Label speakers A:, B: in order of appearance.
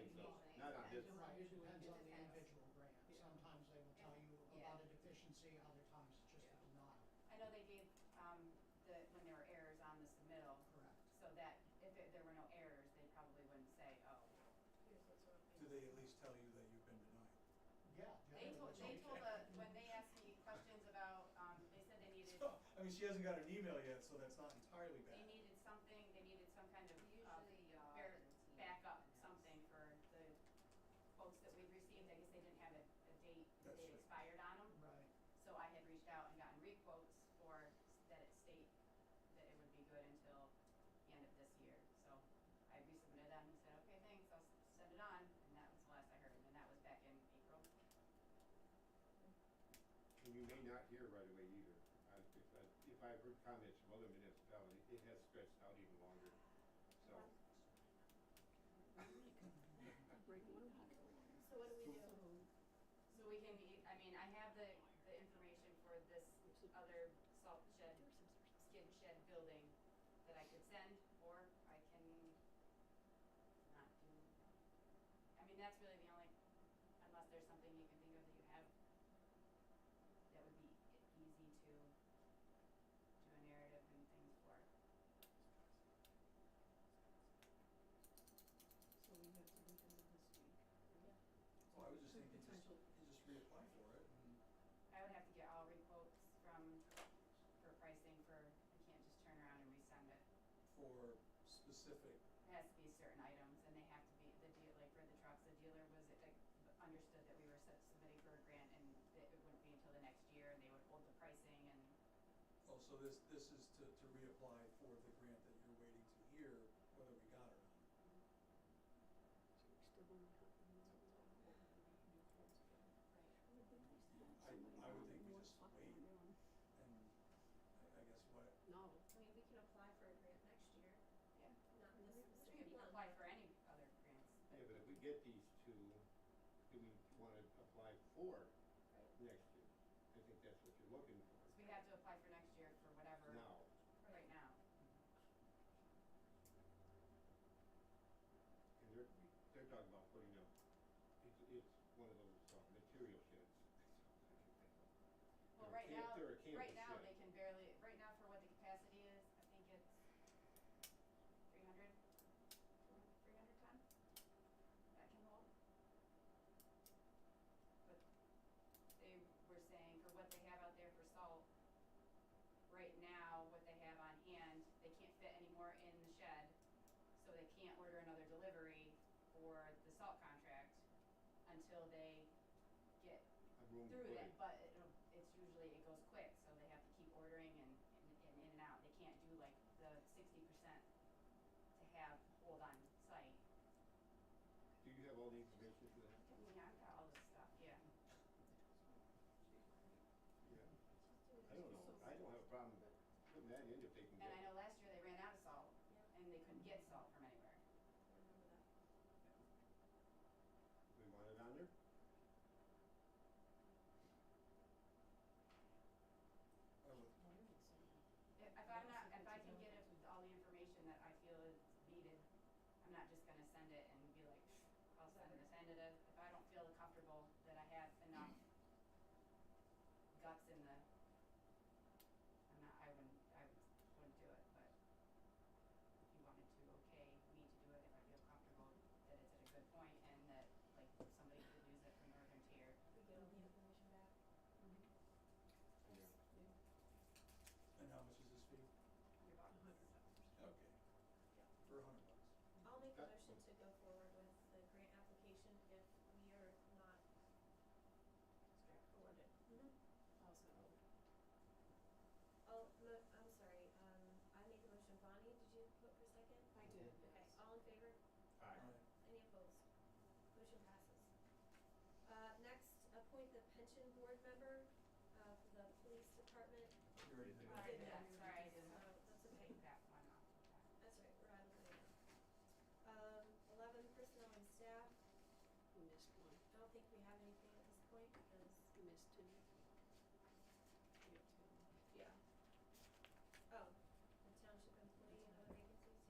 A: depends. Yeah.
B: not a dis-
C: It depends on the individual grant. Sometimes they will tell you
A: Yeah.
C: about a deficiency, other times it's just a
A: Yeah.
C: denial.
A: I know they gave, um, the, when there were errors on the submittal,
C: Correct.
A: so that if it- there were no errors, they probably wouldn't say, oh.
D: Do they at least tell you that you've been denied?
C: Yeah.
A: They told, they told the, when they asked me questions about, um, they said they needed,
D: So, I mean, she hasn't got an email yet, so that's not entirely
A: they
D: bad.
A: needed something, they needed some kind of, uh,
E: Usually, uh,
A: bear-
E: the team
A: backup,
E: has-
A: something for the folks that we received, I guess they didn't have a, a date, the
D: That's
A: date
D: right.
A: expired on them.
C: Right.
A: So I had reached out and gotten requotes for s- that it state that it would be good until the end of this year. So I resubmitted that and he said, okay, thanks, I'll s- send it on. And that was the last I heard, and that was back in April.
B: And you may not hear right away either. I- If, I- if I've heard comments from other municipalities, it has stretched out even longer. So,
F: So what do we do?
A: So we can, e- I mean, I have the, the information for this other salt shed, skid shed building that I could send, or I can not do. I mean, that's really the only, unless there's something you can think of that you have that would be e- easy to do a narrative and things for.
G: So we have to look into this week.
D: So Oh, I was just thinking, just,
G: Potential.
D: you just reapply for it and.
A: I would have to get all requotes from, for pricing for, I can't just turn around and resend it.
D: for specific,
A: It has to be certain items and they have to be, the deal, like for the trucks, the dealer was, like, understood that we were sub- submitting for a grant and that it wouldn't be until the next year and they would hold the pricing and,
D: oh, so this, this is to, to reapply for the grant that you're waiting to hear whether we got it or I- I would think we just wait. not. And I, I guess what,
G: No,
F: I mean, we can apply for a grant next year,
A: yeah.
F: not this
A: We
F: specific
A: could
F: one.
A: apply for any other grants.
B: yeah, but if we get these two, do we want to apply for next year? I think that's what you're looking
A: So we have to apply for next year for
B: for
A: whatever,
B: now.
A: right now.
B: And they're, they're talking about putting up, it's, it's one of those uh, material sheds.
A: Well,
B: Or
A: right
B: camp-
A: now,
B: they're a campus
A: right now,
B: shed.
A: they can barely, right now for what the capacity is, I think it's three hundred, three hundred ton that can hold. But they were saying for what they have out there for salt, right now, what they have on hand, they can't fit any more in the shed. So they can't order another delivery for the salt contract until they get
B: A room to
A: through
B: put
A: that,
B: it.
A: but it'll, it's usually, it goes quick, so they have to keep ordering and, and, and in and out, they can't do like the sixty percent to have hold on site.
B: Do you have all the information for that?
A: I mean, I've got all this stuff, yeah.
B: Yeah. I don't know, I don't have a problem putting that in if they can
A: And I
B: get,
A: know last year they ran out of salt,
F: Yeah, I
A: and they couldn't get salt from anywhere.
F: remember that.
B: we want it on there?
D: I would,
A: If, if I'm not, if I can get it with all the information that I feel is needed, I'm not just gonna send it and be like, "Pfft, I'll send this, send it, if if I don't feel comfortable that I have enough guts in the, I'm not, I wouldn't, I would- wouldn't do it, but if you wanted to, okay, me to do it, if I feel comfortable that it's at a good point and that, like, somebody could use it for northern tier.
F: We get all the information back.
B: Yeah.
D: and how much is this fee?
A: Your box.
D: Okay. For a hundred bucks.
F: I'll make a
B: That-
F: motion to go forward with the grant application if we are not awarded.
G: also,
F: Oh, mo- I'm sorry, um, I made the motion, Bonnie, did you vote for second?
G: I did,
F: Okay,
G: yes.
F: all in favor?
B: Aye.
F: Any opposed? Motion passes. Uh, next, appoint the pension board member, uh, for the police department.
D: You already did it.
A: All right, yeah, sorry, I
F: So,
A: didn't
F: that's okay.
A: take that one off.
F: That's right, we're out of there. Um, eleven, personnel and staff.
G: we missed one,
F: I don't think we have anything at this point because
G: we missed two.
F: Oh,